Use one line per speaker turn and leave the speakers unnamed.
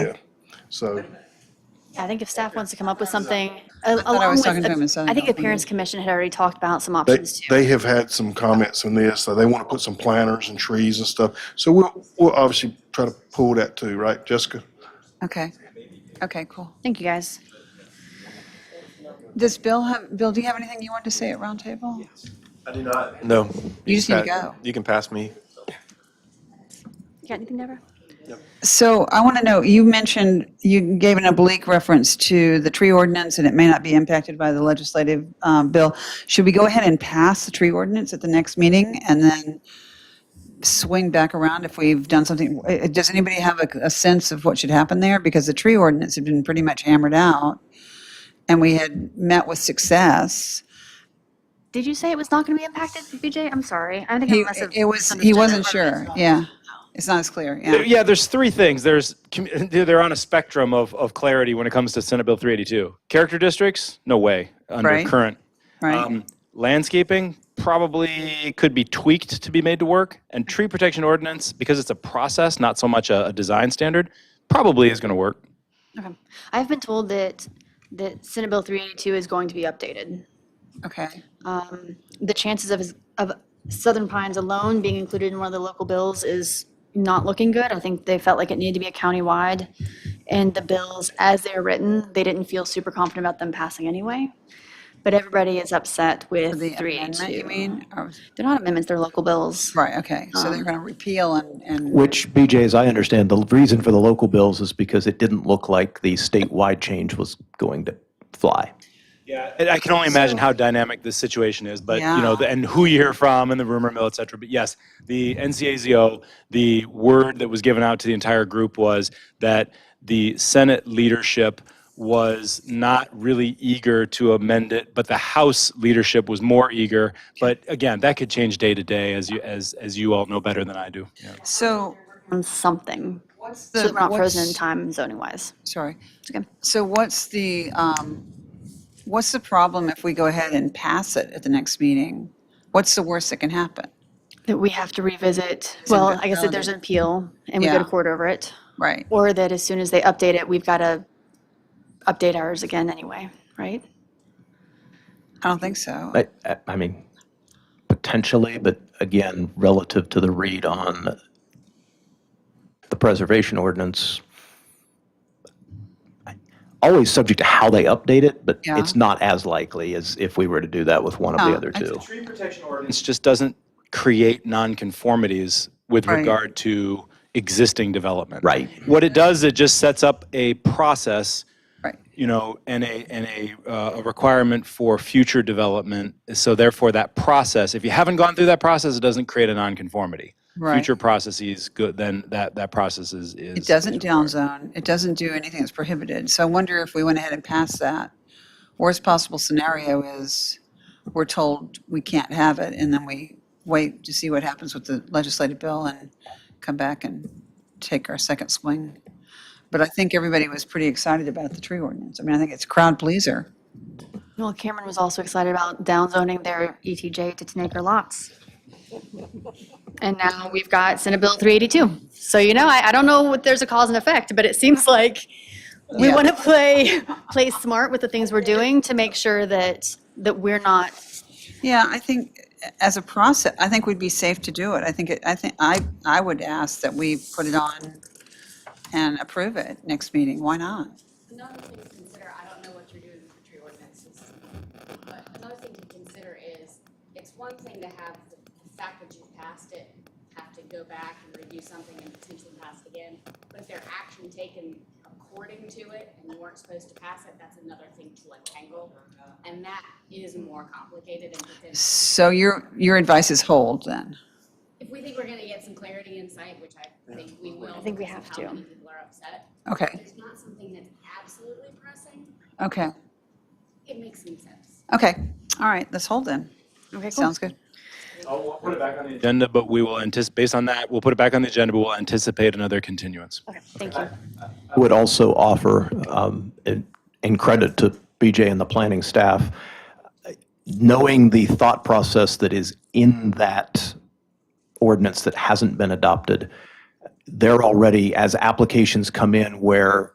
So,
I think if staff wants to come up with something, a-
I was
along with,
talking to him and
the-
sounded
I think the
off mute.
Parents Commission had already talked about some
they,
options too.
they have had some comments on this, so they want to put some planters and trees and stuff. So we'll, we'll obviously try to pull that too, right, Jessica?
Okay. Okay, cool.
Thank you, guys.
Does Bill have, Bill, do you have anything you wanted to say at roundtable?
I do not. No.
You just need to
Pat,
go.
You can pass me.
You got anything, Deborah?
So I want to know, you mentioned, you gave an oblique reference to the tree ordinance and it may not be impacted by the legislative um, bill. Should we go ahead and pass the tree ordinance at the next meeting and then swing back around if we've done something? Uh, Does anybody have a, a sense of what should happen there? Because the tree ordinance had been pretty much hammered out and we had met with success.
Did you say it was not going to be impacted, BJ? I'm sorry. I think I
He,
must have.
it was, he
misunderstood.
wasn't sure, yeah. It's not as clear,
There-
yeah.
Yeah, there's three things. There's commu- they're on a spectrum of, of clarity when it comes to Senate Bill 382. Character districts, no way under
Right.
current.
Right,
Um, landscaping probably could be tweaked to be made to work, and tree protection ordinance because it's a process, not so much a, a design standard, probably is going to work.
Okay. I've been told that, that Senate Bill 382 is going to be updated.
okay.
Um, The chances of, his- of Southern Pines alone being included in one of the local bills is not looking good. I think they felt like it needed to be a countywide. And the bills, as they're written, they didn't feel super confident about them passing anyway. But everybody is upset with
The amendment, you
382.
mean? Or-
They're not amendments, they're local bills.
Right, okay, so they're going to repeal and, and,
Which, BJ, as I understand, the reason for the local bills is because it didn't look like the statewide change was going to fly.
Yeah, I can only imagine how dynamic this situation is, but you know,
Yeah.
the, and who you hear from, and the rumor mill, et cetera. But yes, the NCAZO, the word that was given out to the entire group was that the Senate leadership was not really eager to amend it, but the House leadership was more eager. But again, that could change day to day, as you as as you all know better than I do. Yeah.
so.
On something.
What's
So
the?
we're not frozen in
what's-
time zoning wise.
Sorry.
okay.
So what's the, um, what's the problem if we go ahead and pass it at the next meeting? What's the worst that can happen?
That we have to revisit, well, I guess that there's an appeal and we go to
Yeah.
court over it.
Right,
Or that as soon as they update it, we've got to update ours again anyway, right?
I don't think so.
I, I- I mean, potentially, but again, relative to the read on the preservation ordinance, always subject to how they update it, but
Yeah.
it's not as likely as if we were to do that with one of
No,
the other
I
two.
Tree protection ordinance just doesn't create nonconformities with
Right.
regard to existing development.
Right.
What it does, it just sets up a process,
Right,
you know, and a and a, uh, a requirement for future development. So therefore, that process, if you haven't gone through that process, it doesn't create a nonconformity.
Right.
Future processes, good. Then that that process is is.
it doesn't downzone, it doesn't do anything that's prohibited. So I wonder if we went ahead and passed that, worst possible scenario is we're told we can't have it and then we wait to see what happens with the legislative bill and come back and take our second swing. But I think everybody was pretty excited about the tree ordinance. I mean, I think it's crowd pleaser.
Well, Cameron was also excited about downzoning their ETJ to 10 acre lots. And now we've got Senate Bill 382. So, you know, I, I don't know if there's a cause and effect, but it seems like we
Yeah.
want to play, play smart with the things we're doing to make sure that, that we're not,
Yeah, I think as a process, I think we'd be safe to do it. I think, it- I think, I, I would ask that we put it on and approve it next meeting. Why not?
Another thing to consider, I don't know what you're doing with the tree ordinances, but another thing to consider is, it's one thing to have the fact that you've passed it, have to go back and review something and potentially pass it again, but if there are action taken according to it and you weren't supposed to pass it, that's another thing to untangle, and that is more complicated and because
So your, your advice is hold then?
if we think we're gonna get some clarity and sight, which I think we will.
think we
because of
have
how
to.
many People are upset. If
Okay,
There's not something that's absolutely pressing,
okay,
it makes some sense.
okay. All right, let's hold then.
okay, cool.
Sounds good.
I'll put it back on the
Agenda, but we will anticipate based on that. We'll put it back on the agenda, but we'll anticipate another continuance.
Okay, thank you.
would also offer, um, in in credit to BJ and the planning staff, knowing the thought process that is in that ordinance that hasn't been adopted, they're already, as applications come in where